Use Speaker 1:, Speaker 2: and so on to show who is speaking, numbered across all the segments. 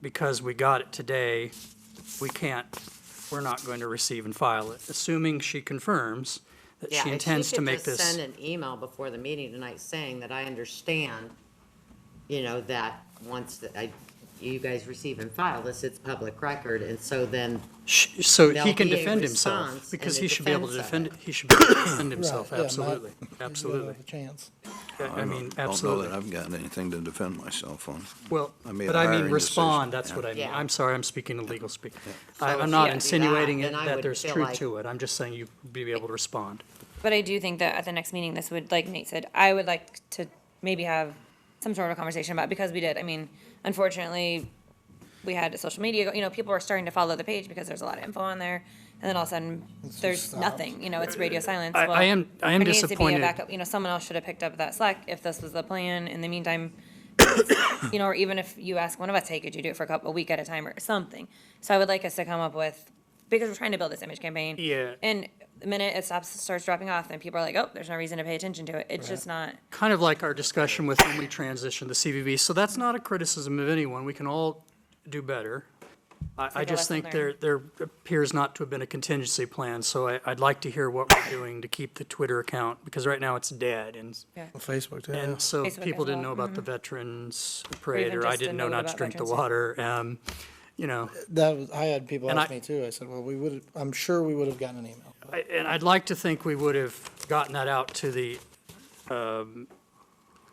Speaker 1: because we got it today, we can't, we're not going to receive and file it, assuming she confirms that
Speaker 2: Yeah,
Speaker 1: she
Speaker 2: if
Speaker 1: intends to
Speaker 2: could
Speaker 1: make
Speaker 2: just
Speaker 1: this.
Speaker 2: Send an email before the meeting tonight saying that I understand, you know, that once that I, you guys receive and file this, it's public record, and so then,
Speaker 1: Sh- So he
Speaker 2: there'll
Speaker 1: can
Speaker 2: be a
Speaker 1: defend
Speaker 2: response
Speaker 1: himself,
Speaker 2: and
Speaker 1: because
Speaker 2: a
Speaker 1: he should be able to
Speaker 2: defense
Speaker 1: defend,
Speaker 2: of
Speaker 1: he should be able to defend himself,
Speaker 3: Right, yeah, Matt,
Speaker 1: absolutely,
Speaker 3: you don't have
Speaker 1: absolutely.
Speaker 3: a Chance.
Speaker 1: I I
Speaker 4: don't-
Speaker 1: mean,
Speaker 4: Don't
Speaker 1: absolutely.
Speaker 4: know that I've got anything to defend myself on.
Speaker 1: Well,
Speaker 4: I made
Speaker 1: but
Speaker 4: a
Speaker 1: I mean,
Speaker 4: hiring
Speaker 1: respond,
Speaker 4: decision.
Speaker 1: that's what I mean.
Speaker 2: Yeah.
Speaker 1: I'm sorry, I'm speaking in legal speak.
Speaker 2: So
Speaker 1: I-
Speaker 2: if
Speaker 1: I'm
Speaker 2: she
Speaker 1: not
Speaker 2: had to do that,
Speaker 1: insinuating it-
Speaker 2: then I
Speaker 1: that
Speaker 2: would
Speaker 1: there's
Speaker 2: feel
Speaker 1: truth
Speaker 2: like-
Speaker 1: to it. I'm just saying you be able to respond.
Speaker 5: But I do think that at the next meeting, this would, like Nate said, I would like to maybe have some sort of conversation about, because we did, I mean, unfortunately, we had social media, you know, people are starting to follow the page because there's a lot of info on there, and then all of a sudden, there's
Speaker 3: stopped.
Speaker 5: nothing, you know, it's radio silence.
Speaker 1: I-
Speaker 5: Well,
Speaker 1: I am- I am
Speaker 5: there needs to be a
Speaker 1: disappointed.
Speaker 5: backup, You know, someone else should have picked up that slack if this was the plan, in the meantime, you know, or even if you ask one of us, hey, could you do it for a couple, a week at a time or something? So I would like us to come up with, because we're trying to build this image campaign.
Speaker 1: Yeah.
Speaker 5: And the minute it stops, starts dropping off, then people are like, oh, there's no reason to pay attention to it. It's just not.
Speaker 1: Kind of like our discussion with when we transitioned to CVB, so that's not a criticism of anyone. We can all do better. I, I
Speaker 5: like a
Speaker 1: just
Speaker 5: lesson
Speaker 1: think there, there appears not to have been a contingency plan, so I, I'd like to hear what we're doing to keep the Twitter account, because right now it's dead, and
Speaker 3: On Facebook, too.
Speaker 1: And so
Speaker 5: Facebook
Speaker 1: people
Speaker 5: as
Speaker 1: didn't
Speaker 5: well,
Speaker 1: know about the veterans parade,
Speaker 5: Mm-hmm. even
Speaker 1: or I
Speaker 5: just a
Speaker 1: didn't know
Speaker 5: note
Speaker 1: not to
Speaker 5: about
Speaker 1: drink the
Speaker 5: Veterans
Speaker 1: water. Um, you know,
Speaker 3: That was, I had people
Speaker 1: And
Speaker 3: ask
Speaker 1: I-
Speaker 3: me too. I said, well, we would, I'm sure we would have gotten an email.
Speaker 1: I, and I'd like to think we would have gotten that out to the um,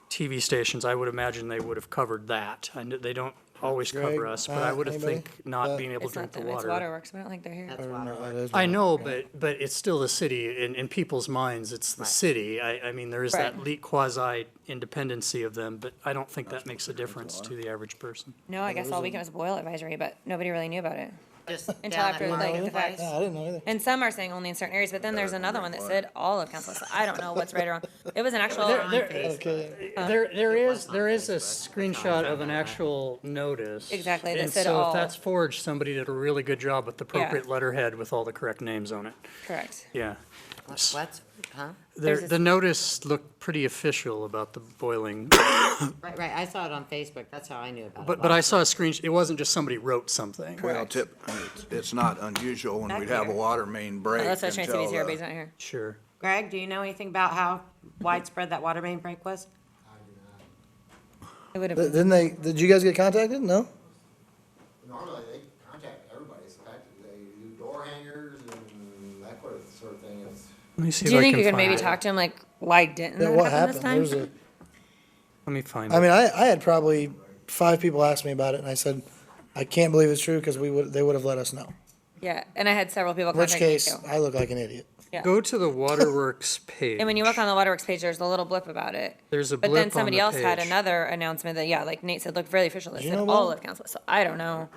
Speaker 1: TV stations. I would imagine they would have covered that. I know they don't always cover
Speaker 3: Greg,
Speaker 1: us, but I
Speaker 3: Matt,
Speaker 1: would have
Speaker 3: anybody?
Speaker 1: think not
Speaker 3: Matt?
Speaker 1: being able to
Speaker 5: It's
Speaker 1: drink
Speaker 5: not
Speaker 1: the
Speaker 5: them. It's
Speaker 1: water.
Speaker 5: waterworks. We don't think they're here.
Speaker 2: that's
Speaker 3: I don't
Speaker 2: why.
Speaker 3: know, that is
Speaker 1: I
Speaker 3: what-
Speaker 1: know, but, but it's still the city. In, in people's minds, it's the city. I, I mean, there is that
Speaker 5: Right.
Speaker 1: le quasi-independency of them, but I don't think that makes a difference to the average person.
Speaker 5: No, I guess all we can was boil advisory, but nobody really knew about it.
Speaker 2: Just
Speaker 5: Until
Speaker 2: down
Speaker 5: after,
Speaker 2: at
Speaker 5: like, the
Speaker 2: Marketplace.
Speaker 5: fact-
Speaker 3: Yeah, I didn't know either.
Speaker 5: And some are saying only in certain areas, but then there's another one that said all of council. So I don't know what's right or wrong. It was an actual. um,
Speaker 3: Okay,
Speaker 5: Uh,
Speaker 1: There, there
Speaker 2: It was
Speaker 1: is,
Speaker 2: on
Speaker 1: there is a
Speaker 2: Facebook.
Speaker 1: screenshot of an actual notice.
Speaker 5: Exactly, that
Speaker 1: And
Speaker 5: said
Speaker 1: so if
Speaker 5: all.
Speaker 1: that's forged, somebody did a really good job with the appropriate letterhead with all the correct names on it.
Speaker 5: Correct.
Speaker 1: Yeah.
Speaker 2: What- What's, huh?
Speaker 1: The,
Speaker 5: There's a-
Speaker 1: the notice looked pretty official about the boiling,
Speaker 2: Right, right, I saw it on Facebook, that's how I knew about it.
Speaker 1: but, but I
Speaker 2: last
Speaker 1: saw a screen, it wasn't just somebody wrote something.
Speaker 4: Well, tip, it's- it's not unusual when
Speaker 5: Back
Speaker 4: we'd have a
Speaker 5: here.
Speaker 4: water main break
Speaker 5: That's what I was trying to say. He's
Speaker 4: until,
Speaker 5: here, but
Speaker 4: uh,
Speaker 5: he's not here.
Speaker 1: Sure.
Speaker 2: Greg, do you know anything about how widespread that water main break was?
Speaker 5: It would have
Speaker 3: Th- Didn't
Speaker 5: been.
Speaker 3: they, did you guys get contacted? No?
Speaker 6: Normally, they contact everybody, it's fact, they do door hangers and that sort of- sort of thing, it's.
Speaker 1: Let me see
Speaker 5: Do
Speaker 1: if
Speaker 5: you
Speaker 1: I
Speaker 5: think
Speaker 1: can
Speaker 5: you could
Speaker 1: find
Speaker 5: maybe
Speaker 1: it.
Speaker 5: talk to him, like, why didn't
Speaker 3: Yeah,
Speaker 5: that
Speaker 3: what
Speaker 5: happen this
Speaker 3: happened? There was
Speaker 5: time?
Speaker 3: a,
Speaker 1: Let me find
Speaker 3: I
Speaker 1: it.
Speaker 3: mean, I, I had probably five people ask me about it and I said, I can't believe it's true because we would, they would have let us know.
Speaker 5: Yeah, and I had several people
Speaker 3: In which
Speaker 5: contact me
Speaker 3: case,
Speaker 5: too.
Speaker 3: I look like an idiot.
Speaker 5: yeah.
Speaker 1: Go to the waterworks page.
Speaker 5: And when you look on the Waterworks page, there's a little blip about it.
Speaker 1: There's a
Speaker 5: But
Speaker 1: blip on
Speaker 5: then somebody
Speaker 1: the
Speaker 5: else had
Speaker 1: page.
Speaker 5: another announcement that, yeah, like Nate said, looked really official. That
Speaker 3: You
Speaker 5: said
Speaker 3: know
Speaker 5: all
Speaker 3: what?
Speaker 5: of council. So I don't know.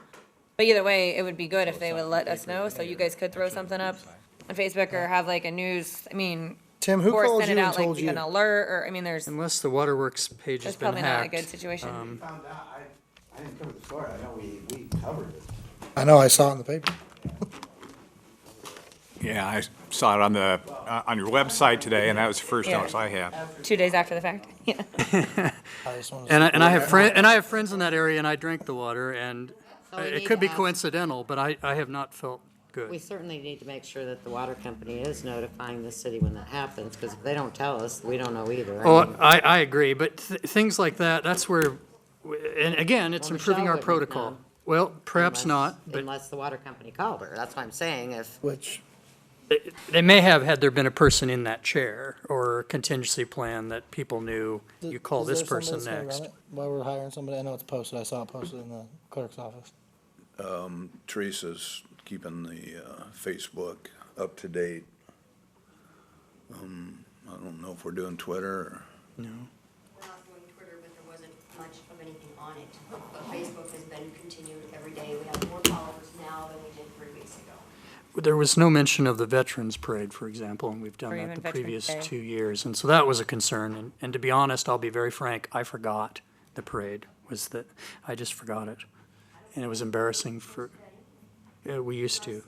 Speaker 5: But either way, it would be good if they would let us know. So you guys could throw something up on Facebook or have like a news. I mean,
Speaker 3: Tim, who
Speaker 5: or
Speaker 3: called
Speaker 5: send
Speaker 3: you
Speaker 5: it
Speaker 3: and
Speaker 5: out
Speaker 3: told
Speaker 5: like
Speaker 3: you?
Speaker 5: an alert or I mean, there's
Speaker 1: Unless the waterworks page has
Speaker 5: that's
Speaker 1: been
Speaker 5: probably not a good
Speaker 1: hacked. Um,
Speaker 5: situation.
Speaker 3: Um,
Speaker 6: Found out, I, I didn't cover the story, I know we, we covered it.
Speaker 3: I know, I saw it in the paper.
Speaker 7: Yeah, I saw it on the, uh, on your website today, and that was the first
Speaker 5: Yeah.
Speaker 7: notice I had.
Speaker 5: Two days after the fact. Yeah.
Speaker 3: I just wanted to-
Speaker 1: And I, and I have friend, and I have friends in that area and I drink the water and
Speaker 2: So we
Speaker 1: it
Speaker 2: Oh, need
Speaker 1: could
Speaker 2: to
Speaker 1: be
Speaker 2: ask-
Speaker 1: coincidental, but I, I have not felt good.
Speaker 2: We certainly need to make sure that the water company is notifying the city when that happens, because if they don't tell us, we don't know either. I
Speaker 1: Oh,
Speaker 2: mean,
Speaker 1: I, I agree, but th- things like that, that's where, w- and again, it's
Speaker 2: Well,
Speaker 1: improving our
Speaker 2: Michelle wouldn't have
Speaker 1: protocol.
Speaker 2: known.
Speaker 1: Well, perhaps
Speaker 2: unless-
Speaker 1: not, but
Speaker 2: Unless the water company called her, that's what I'm saying, if,
Speaker 3: Which,
Speaker 1: they may have had there been a person in that chair or a contingency plan that people knew, you call
Speaker 3: Is
Speaker 1: this
Speaker 3: there somebody
Speaker 1: person
Speaker 3: that's gonna run
Speaker 1: next.
Speaker 3: it While we're hiring somebody, I know it's posted, I saw it posted in the clerk's office.
Speaker 4: uh, Teresa's keeping the uh, Facebook up to date. Um, I don't know if we're doing Twitter or.
Speaker 8: We're not doing Twitter, but there wasn't much of anything on it. But Facebook has been continued every day. We have more followers now than we did three weeks ago.
Speaker 1: There was no mention of the Veterans Parade, for example, and we've
Speaker 5: Or
Speaker 1: done
Speaker 5: even
Speaker 1: that the
Speaker 5: Veterans
Speaker 1: previous
Speaker 5: Day.
Speaker 1: two years. And so that was a concern. And, and to be honest, I'll be very frank, I forgot the parade was that, I just forgot it. And it was embarrassing for, yeah, we used to.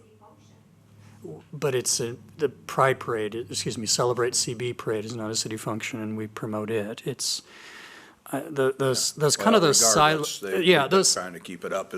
Speaker 1: But it's a, the Pride Parade, excuse me, Celebrate CB Parade is not a city function and we promote it. It's, uh, the, those, those kind of
Speaker 4: Well,
Speaker 1: those
Speaker 4: regardless,
Speaker 1: silent,
Speaker 4: they-
Speaker 1: yeah,
Speaker 4: they're
Speaker 1: those,
Speaker 4: Trying to keep it up